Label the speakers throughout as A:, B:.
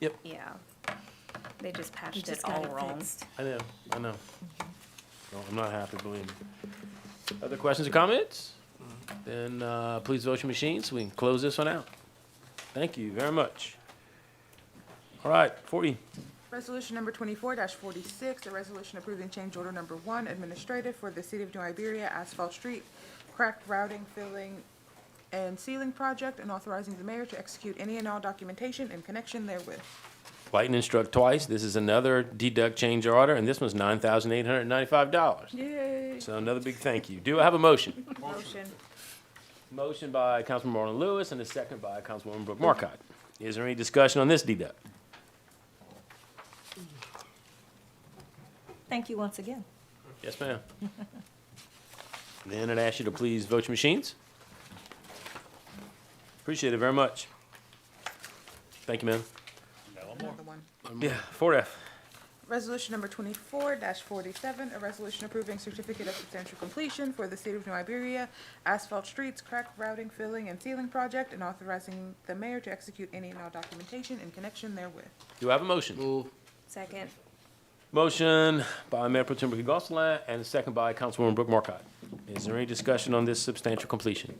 A: Yep,
B: Yeah. They just patched it
C: just got
B: all
C: it
B: wrong.
C: fixed.
A: I know, I know. No, I'm not happy, believe me. Other questions or comments? Then, uh, please vote your machines, we can close this one out. Thank you very much. All right, four E,
D: Resolution number twenty-four forty-six, a resolution approving change order number one administrative for the City of New Iberia Asphalt Street Crack Routing Filling and Sealing Project and authorizing the mayor to execute any and all documentation in connection therewith.
A: lightning struck twice, this is another deduct change order, and this one's nine thousand eight hundred and ninety-five dollars.
B: Yay.
A: So another big thank you. Do I have a motion?
B: Motion.
A: Motion by Councilman Marlon Lewis and a second by Councilwoman Brooke Markcott. Is there any discussion on this deduct?
C: Thank you once again.
A: Yes, ma'am. Then I'd ask you to please vote your machines. Appreciate it very much. Thank you, ma'am.
D: Another one.
A: Yeah, four F.
D: Resolution number twenty-four forty-seven, a resolution approving certificate of substantial completion for the City of New Iberia Asphalt Streets Crack Routing Filling and Sealing Project and authorizing the mayor to execute any and all documentation in connection therewith.
A: Do I have a motion?
B: Second.
A: Motion by Mayor Pro Tem Ricky Gonsalas and a second by Councilwoman Brooke Markcott. Is there any discussion on this substantial completion?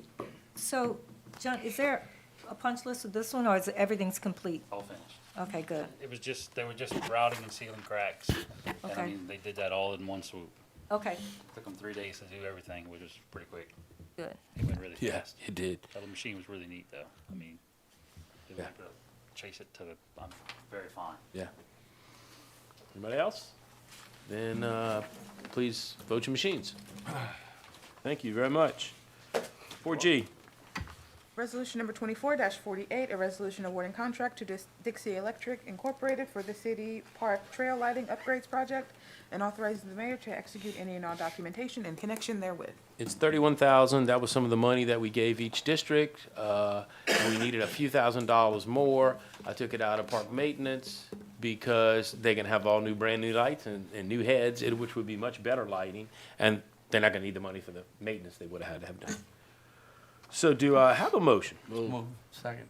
C: So, John, is there a punch list of this one, or is it- everything's complete?
E: all finished.
C: Okay, good.
E: It was just, they were just routing and sealing cracks. And
C: Okay.
E: I mean, they did that all in one swoop.
C: Okay,
E: Took them three days to do everything, which was pretty quick.
C: good.
E: It went really fast.
A: It did.
E: The machine was really neat, though. I mean, they were
A: Yeah.
E: able to chase it to the, um, very fine.
A: Yeah. Anybody else? Then, uh, please vote your machines. Thank you very much. Four G.
D: Resolution number twenty-four forty-eight, a resolution awarding contract to Dis- Dixie Electric Incorporated for the City Park Trail Lighting Upgrades Project and authorizing the mayor to execute any and all documentation in connection therewith.
A: It's thirty-one thousand. That was some of the money that we gave each district. Uh, and we needed a few thousand dollars more. I took it out of park maintenance because they can have all new, brand-new lights and, and new heads, and which would be much better lighting. And they're not gonna need the money for the maintenance they would have had to have done. So do I have a motion?
F: Second.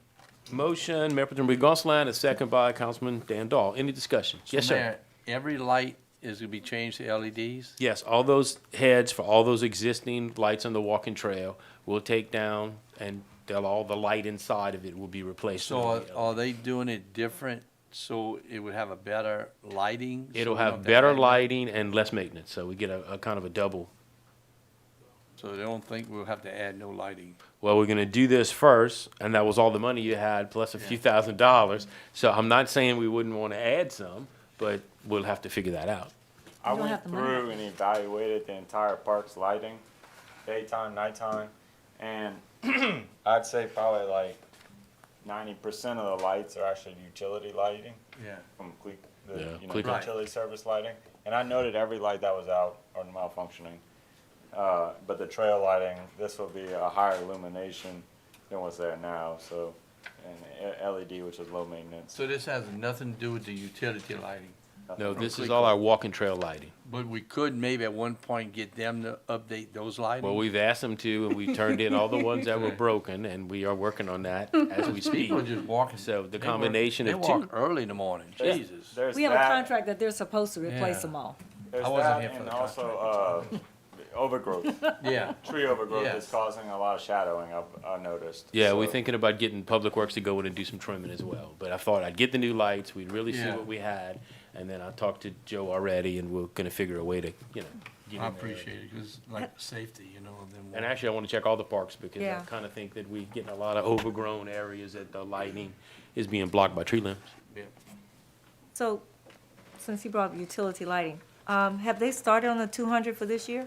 A: Motion, Mayor Pro Tem Ricky Gonsalas, a second by Councilman Dan Dahl. Any discussion? Yes, sir.
F: Mayor, Every light is gonna be changed to E LEDs?
A: Yes, all those heads for all those existing lights on the walking trail will take down and they'll, all the light inside of it will be replaced.
F: So are-
A: with LED.
F: are they doing it different, so it would have a better lighting? so
A: It'll
F: we don't
A: have
F: to
A: better
F: hang it?
A: lighting and less maintenance, so we get a, a kind of a double.
F: So they don't think we'll have to add no lighting?
A: Well, we're gonna do this first, and that was all the money you had, plus a few thousand dollars. So I'm not saying we wouldn't wanna add some, but we'll have to figure that out.
G: I
C: don't have
G: went
C: the money.
G: through and evaluated the entire park's lighting, daytime, nighttime, and I'd say probably like ninety percent of the lights are actually utility lighting
F: Yeah.
G: from Cle-
A: Yeah,
G: the, you know,
A: Cleco.
G: utility service lighting. And I noted every light that was out or malfunctioning. Uh, but the trail lighting, this will be a higher illumination than what's there now, so, and e- LED, which is low maintenance.
F: So this has nothing to do with the utility lighting?
A: No, this is all our walking trail lighting.
F: But we could maybe at one point get them to update those lighting?
A: Well, we've asked them to, and we turned in all the ones that were
F: Okay.
A: broken, and we are working on that as we speak.
F: People just walking.
A: So the
F: they work-
A: combination of
F: They
A: two.
F: walk early in the morning,
G: There's-
F: Jesus.
G: there's
C: We have a
G: that.
C: contract that they're supposed to replace
F: Yeah.
C: them all.
G: There's
F: I wasn't
G: that
F: here for
G: and
F: the
G: also uh, overgrowth.
F: Yeah,
G: Tree overgrowth is
F: Yes.
G: causing a lot of shadowing. I've, I noticed.
A: Yeah,
G: so
A: we're thinking about getting Public Works to go in and do some trimming as well. But I thought I'd get the new lights, we'd really see
F: Yeah.
A: what we had, and then I talked to Joe already, and we're gonna figure a way to, you know. get in
F: I
A: there.
F: appreciate it, because like safety, you know, of them.
A: And
F: walking.
A: actually, I wanna check all the parks, because I
C: Yeah.
A: kinda think that we getting a lot of overgrown areas that the lighting is being blocked by tree limbs.
F: Yeah.
C: So, since you brought up utility lighting, um, have they started on the two hundred for this year?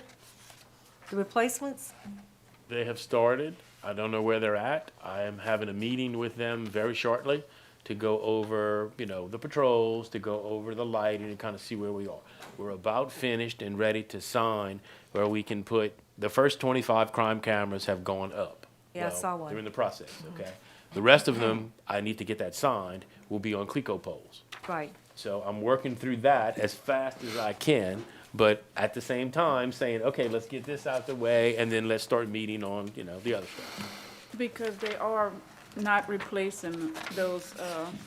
C: The replacements?
A: They have started. I don't know where they're at. I am having a meeting with them very shortly to go over, you know, the patrols, to go over the lighting and kind of see where we are. We're about finished and ready to sign where we can put, the first twenty-five crime cameras have gone up.
C: Yeah, I
A: Well,
C: saw one. Mm-hmm.
A: They're in the process, okay? The rest of them, I need to get that signed, will be on Clico poles.
C: Right,
A: So I'm working through that as fast as I can, but at the same time saying, okay, let's get this out the way and then let's start meeting on, you know, the other stuff.
H: Because they are not replacing those, uh,